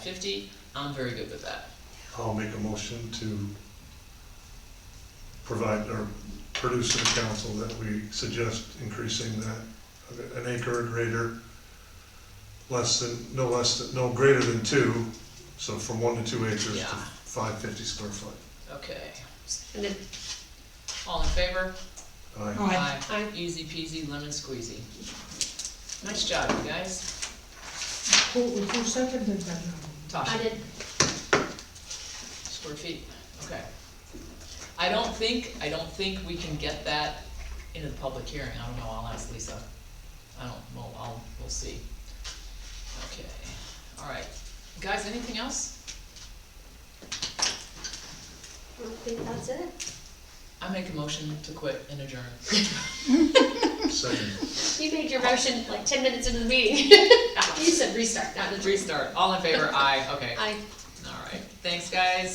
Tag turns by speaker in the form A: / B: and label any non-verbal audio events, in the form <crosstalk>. A: fifty, I'm very good with that.
B: I'll make a motion to provide, or produce to the council that we suggest increasing that, an acre or greater, less than, no less than, no greater than two, so from one to two acres to
A: Yeah.
B: five fifty square foot.
A: Okay,
C: And then,
A: all in favor?
B: Aye.
C: aye,
A: Aye. Easy peasy lemon squeezy. Nice job, you guys.
D: Who, who seconded that now?
C: I
A: Tasha,
C: did,
A: square feet, okay. I don't think, I don't think we can get that into the public hearing, I don't know, I'll ask Lisa. I don't, well, I'll, we'll see. Okay, all right. Guys, anything else?
C: I think that's it.
A: I make a motion to quit and
C: <laughs>
A: adjourn.
B: Second.
C: You made your motion like ten minutes into the meeting. <laughs> You said restart, not adjourn. <laughs>
A: Restart, all in favor, aye, okay,
C: I
A: all right. Thanks, guys.